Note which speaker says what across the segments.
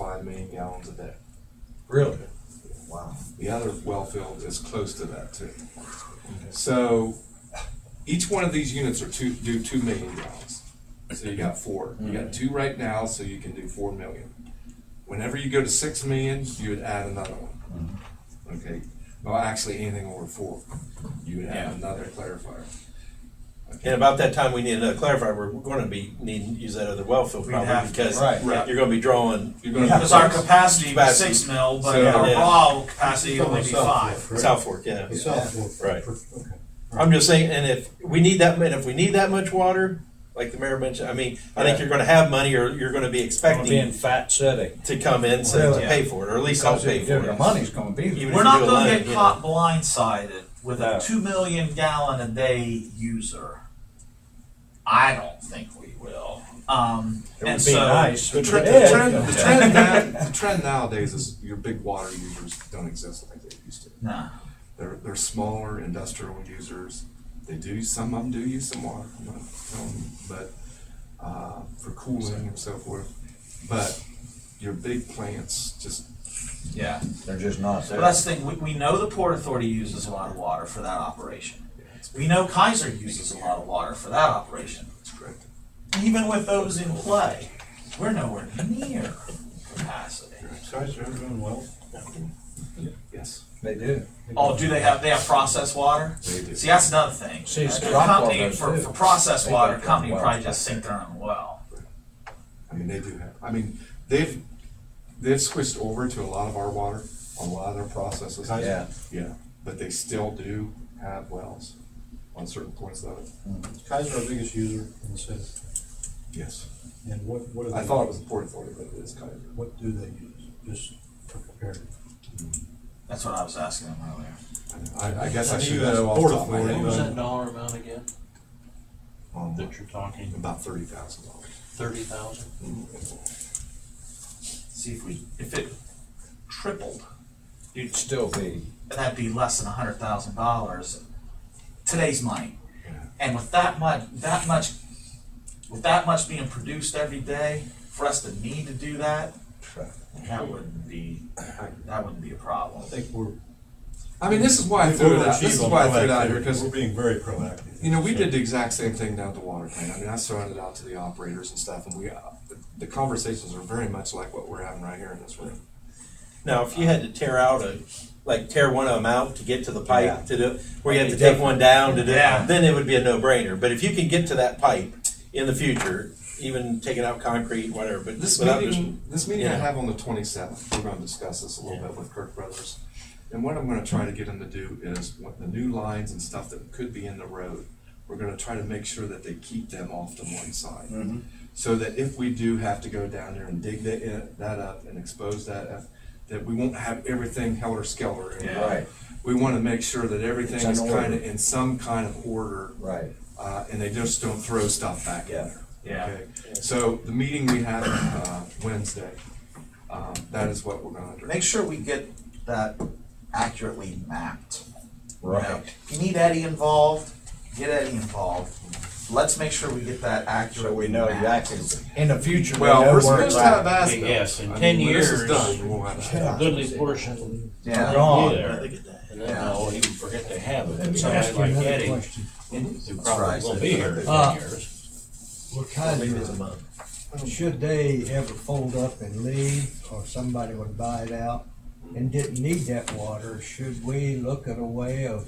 Speaker 1: five million gallons a day.
Speaker 2: Really?
Speaker 1: Wow. The other well field is close to that too. So each one of these units are two, do two million gallons. So you got four. You got two right now, so you can do four million. Whenever you go to six million, you would add another one. Okay, well, actually, anything over four, you would add
Speaker 3: Yeah.
Speaker 1: another clarifier.
Speaker 4: And about that time, we need another clarifier, we're, we're gonna be, need to use that other well field
Speaker 3: We'd
Speaker 4: probably,
Speaker 3: have to,
Speaker 4: because
Speaker 2: right,
Speaker 1: right.
Speaker 4: you're gonna be drawing
Speaker 1: You're gonna-
Speaker 3: Because our capacity was
Speaker 4: Capacity.
Speaker 3: six mil, but
Speaker 1: So-
Speaker 3: our
Speaker 4: Yeah.
Speaker 3: raw capacity would only be
Speaker 5: South
Speaker 3: five.
Speaker 5: Fork, right?
Speaker 4: South Fork, yeah.
Speaker 5: The South Fork.
Speaker 4: Right.
Speaker 5: Okay.
Speaker 4: I'm just saying, and if we need that, and if we need that much water, like the mayor mentioned, I mean, I think
Speaker 2: Yeah.
Speaker 4: you're gonna have money, or you're gonna be
Speaker 2: Gonna be in
Speaker 4: expecting
Speaker 2: fat city.
Speaker 4: to come in, so to
Speaker 2: Yeah.
Speaker 4: pay for it, or at least I'll
Speaker 2: Because
Speaker 4: pay
Speaker 2: if
Speaker 4: for
Speaker 2: the
Speaker 4: it.
Speaker 2: money's gonna be
Speaker 4: Even
Speaker 2: there.
Speaker 4: if
Speaker 3: We're
Speaker 4: you
Speaker 3: not
Speaker 4: do a
Speaker 3: gonna
Speaker 4: line,
Speaker 3: get
Speaker 4: you
Speaker 3: caught blindsided with
Speaker 2: No.
Speaker 3: a two million gallon a day user. I don't think we will. Um,
Speaker 2: It
Speaker 3: and
Speaker 2: would be
Speaker 3: so.
Speaker 2: nice.
Speaker 1: The
Speaker 2: if
Speaker 1: trend,
Speaker 2: it
Speaker 1: the
Speaker 2: is.
Speaker 1: trend, the trend now, the trend nowadays is your big water users don't exist like they used to.
Speaker 3: Nah.
Speaker 1: They're, they're smaller industrial users. They do, some of them do use some water, I'm not telling you, but, uh, for cooling and so forth. But your big plants just,
Speaker 3: Yeah.
Speaker 2: They're just not
Speaker 3: But
Speaker 2: there.
Speaker 3: that's the thing, we, we know the Port Authority uses a lot of water for that operation. We know Kaiser uses a lot of water for that operation.
Speaker 1: it's correct.
Speaker 3: Even with those in play, we're nowhere near capacity.
Speaker 5: Kaiser, they're doing well.
Speaker 1: Yes,
Speaker 2: They do.
Speaker 3: Oh, do they have, they have processed water?
Speaker 1: they do.
Speaker 3: See, that's another thing.
Speaker 2: See, it's
Speaker 3: A
Speaker 2: rock
Speaker 3: company
Speaker 2: waters,
Speaker 3: for,
Speaker 2: too.
Speaker 3: for processed
Speaker 2: They
Speaker 3: water,
Speaker 2: got their
Speaker 3: company
Speaker 2: wells
Speaker 3: probably
Speaker 2: back
Speaker 3: just sink their own well.
Speaker 1: I mean, they do have, I mean, they've, they've switched over to a lot of our water, a lot of their processes.
Speaker 2: Yeah.
Speaker 1: Yeah, but they still do have wells on certain points of it,
Speaker 5: Kaiser, our biggest user in the city.
Speaker 1: yes.
Speaker 5: And what, what do they?
Speaker 1: I thought it was the Port Authority, but it is kind of.
Speaker 5: What do they use, just for comparative?
Speaker 3: That's what I was asking them earlier.
Speaker 1: I, I guess I
Speaker 5: I knew
Speaker 1: should
Speaker 5: that's
Speaker 1: know off the
Speaker 5: Port
Speaker 1: top of my
Speaker 5: Authority,
Speaker 1: head.
Speaker 6: What was
Speaker 5: but-
Speaker 6: that dollar amount again?
Speaker 1: Um,
Speaker 6: That you're talking,
Speaker 1: About thirty thousand dollars.
Speaker 6: thirty thousand?
Speaker 3: See, if we, if it tripled,
Speaker 2: You'd still be.
Speaker 3: that'd be less than a hundred thousand dollars, today's money. And with that much, that much, with that much being produced every day, for us to need to do that, that wouldn't be, that wouldn't be a
Speaker 5: I
Speaker 3: problem.
Speaker 5: think we're.
Speaker 1: I mean, this is why I threw it out, this is why I threw it out here, because,
Speaker 5: We're being very proactive.
Speaker 1: you know, we did the exact same thing down at the water plant. I mean, I surrounded out to the operators and stuff, and we, uh, the- the conversations are very much like what we're having right here in this room.
Speaker 4: Now, if you had to tear out a, like tear one of them out to get to the
Speaker 1: Yeah.
Speaker 4: pipe to do, where you have to take one down to do,
Speaker 3: Yeah.
Speaker 4: then it would be a no-brainer. But if you can get to that pipe in the future, even taking out concrete, whatever, but
Speaker 1: This
Speaker 4: without just.
Speaker 1: meeting, this meeting I
Speaker 4: yeah.
Speaker 1: have on the twenty-seventh, we're gonna discuss this a little bit with Kirk Brothers. And what I'm gonna try to get them to do is, what the new lines and stuff that could be in the road, we're gonna try to make sure that they keep them off to one side.
Speaker 2: Mm-hmm.
Speaker 1: So that if we do have to go down there and dig that, that up and expose that, up, that we won't have everything helter-skelter. in there.
Speaker 2: Right,
Speaker 1: We wanna make sure that everything
Speaker 2: It's in
Speaker 1: is
Speaker 2: order.
Speaker 1: kinda in some kind of order
Speaker 2: right.
Speaker 1: uh, and they just don't throw stuff back in there.
Speaker 3: Yeah.
Speaker 1: Okay? So the meeting we have, uh, Wednesday, um, that is what we're gonna do.
Speaker 3: Make sure we get that accurately mapped. you know.
Speaker 2: Right.
Speaker 3: If you need Eddie involved, get Eddie involved. Let's make sure we get that accurately. mapped.
Speaker 2: In the future, we
Speaker 1: Well,
Speaker 2: know
Speaker 1: we're
Speaker 2: where
Speaker 1: supposed
Speaker 2: it's
Speaker 1: to have
Speaker 2: at.
Speaker 1: Aspen.
Speaker 6: Yes, in
Speaker 1: I mean,
Speaker 6: 10
Speaker 1: when This is
Speaker 6: years.
Speaker 1: done, we'll have
Speaker 6: A
Speaker 1: Aspen.
Speaker 6: goodly portion
Speaker 3: Yeah.
Speaker 2: Gone.
Speaker 6: there. And then I'll even forget they have it, and guys like Eddie, who
Speaker 3: right.
Speaker 6: probably will be here in
Speaker 7: Uh,
Speaker 6: ten years.
Speaker 7: Well, Kaiser, should they ever fold up and leave, or somebody would buy it out and didn't need that water, should we look at a way of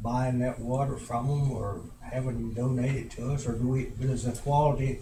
Speaker 7: buying that water from them, or having them donate it to us, or do we, does the quality?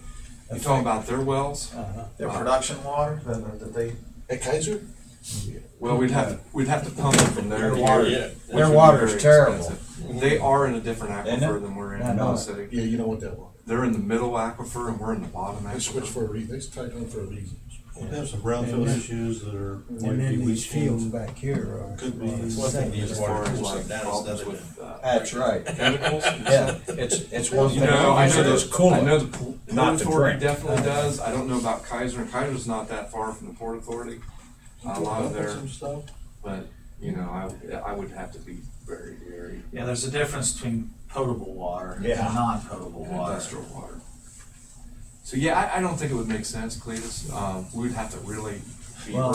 Speaker 1: You talking about their wells?
Speaker 7: Uh-huh.
Speaker 3: Their production water, that, that they,
Speaker 1: Well, we'd have, we'd have to pump it from
Speaker 2: Their
Speaker 1: their water.
Speaker 2: water-
Speaker 1: which
Speaker 2: their
Speaker 1: would be
Speaker 2: water's
Speaker 1: very
Speaker 2: terrible.
Speaker 1: expensive. They are in a different
Speaker 2: Isn't it?
Speaker 1: aquifer than we're in,
Speaker 7: I
Speaker 1: in
Speaker 7: know
Speaker 1: the
Speaker 7: it.
Speaker 1: city.
Speaker 8: Yeah, you don't want that one.
Speaker 1: They're in the middle aquifer and we're in the bottom
Speaker 8: They switched
Speaker 1: aquifer.
Speaker 8: for a reason. They tied on for a reason.
Speaker 5: We have some brownfield issues that are.
Speaker 7: And
Speaker 5: might be
Speaker 7: then these
Speaker 5: weekends.
Speaker 7: fields back here are.
Speaker 5: Could be.
Speaker 7: are-
Speaker 5: It's
Speaker 4: One thing to use
Speaker 1: As far
Speaker 4: water
Speaker 1: as
Speaker 4: for,
Speaker 1: like
Speaker 4: that is
Speaker 1: problems
Speaker 4: another
Speaker 1: with, uh,
Speaker 2: That's right.
Speaker 1: chemicals and
Speaker 2: Yeah, it's, it's one
Speaker 1: You
Speaker 2: thing.
Speaker 1: know, I know
Speaker 2: It's
Speaker 1: the,
Speaker 2: cooling.
Speaker 1: I know the Port
Speaker 2: Not to
Speaker 1: Authority
Speaker 2: drink.
Speaker 1: definitely does, I don't know about Kaiser, and Kaiser's not that far from the Port Authority. A lot of their,
Speaker 8: Some stuff.
Speaker 1: but, you know, I, I would have to be very, very
Speaker 3: yeah, there's a difference between potable water and
Speaker 2: Yeah.
Speaker 3: non-potable water.
Speaker 1: industrial water. So, yeah, I, I don't think it would make sense, Cletus, um, we'd have to really be
Speaker 7: Well,